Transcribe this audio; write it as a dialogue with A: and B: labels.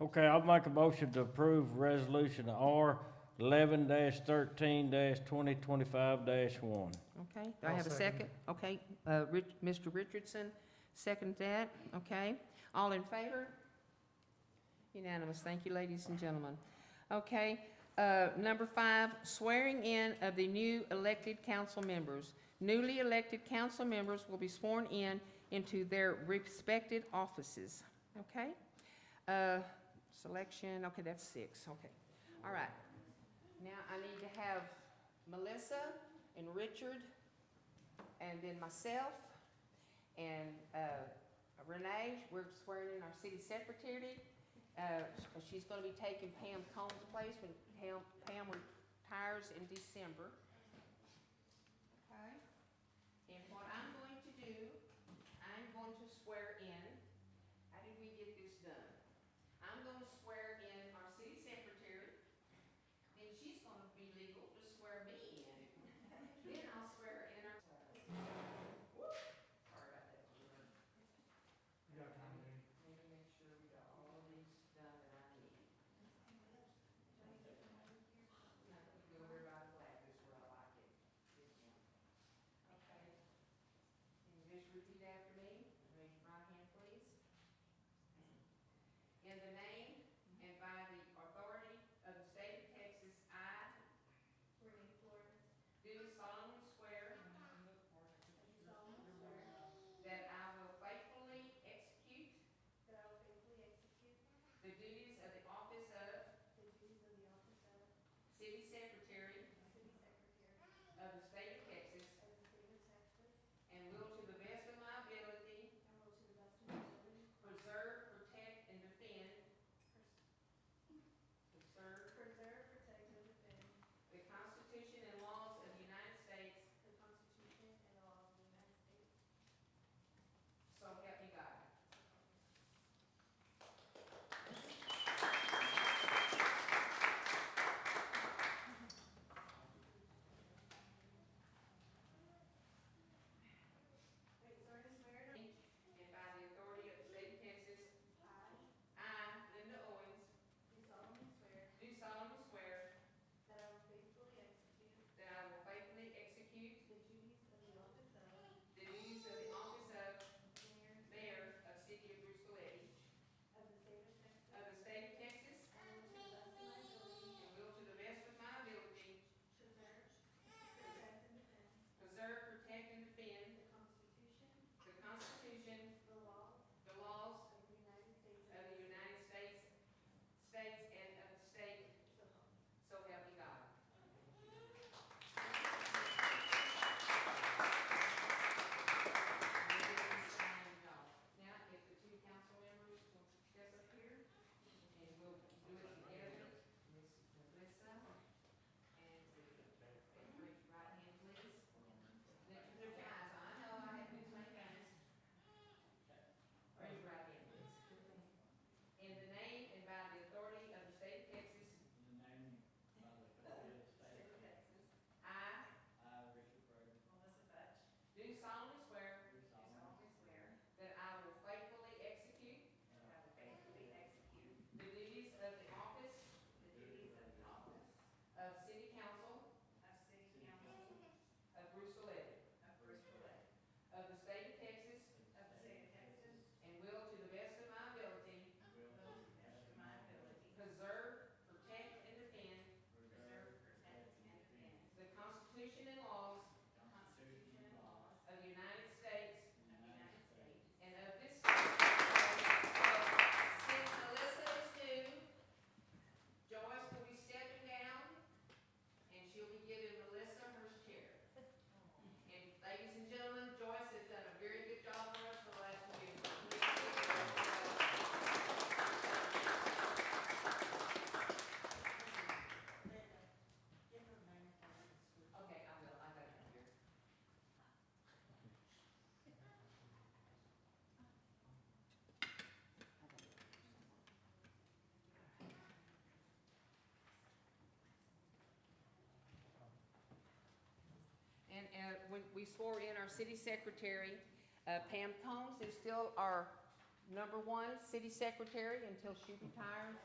A: Okay, I'll make a motion to approve resolution R eleven thirteen twenty twenty-five one.
B: Okay, do I
C: I'll
B: have a second?
C: second
B: Okay, uh, Rich, Mr. Richardson, second that, okay? All in favor? Unanimous, thank you, ladies and gentlemen. Okay, uh, number five, swearing in of the new elected council members. Newly elected council members will be sworn in into their respected offices, okay? Uh, selection, okay, that's six, okay. All right. Now I need to have Melissa and Richard and then myself and uh, Renee, we're swearing in our city secretary. Uh, She's gonna be taking Pam Combs' place when Pam, Pam retires in December. Okay? And what I'm going to do, I'm going to swear in, how did we get this done? I'm gonna swear in our city secretary, then she's gonna be legal to swear me in. Then I'll swear in our. Sorry about that. Maybe make sure we got all of these done that I need. Now, if you Go over by the flag, this is where I like it. This one. Okay. Can you just repeat after me? Raise your right hand, please. In the name and by the authority of the state of Texas, I do solemnly swear. That I will faithfully execute. The duties of the office of. City secretary. Of the state of Texas. And will to the best of my ability. Preserve, protect, and defend. Preserve. The Constitution and laws of the United States. So help me God. And by the authority of the state of Texas. I. Linda Owens. Do solemnly swear. That I will faithfully execute. The duties of the office of. Mayor of City of Brewster Lake. Of the state of Texas. And will to the best of my ability. Preserve, protect, and defend. The Constitution. The laws. Of the United States. States and of the state. So help me God. Now, if the two council members will step up here, and we'll do it together. Miss Melissa, and raise your right hand, please. Let your blue eyes, I know I have been saying guys. Raise your right hand, please. In the name and by the authority of the state of Texas, I do solemnly swear that I will faithfully execute the duties of the office of city council of Brewster Lake, of the state of Texas, and will to the best of my ability preserve, protect, and defend the Constitution and laws of the United States and of this state. Since Melissa is new, Joyce will be stepping down, and she'll be giving Melissa her chair. And ladies and gentlemen, Joyce has done a very good job for us the last few years. Okay, I will, I got it here. And, uh when we swore in our city secretary, uh, Pam Combs is still our Number one, city secretary until she retires.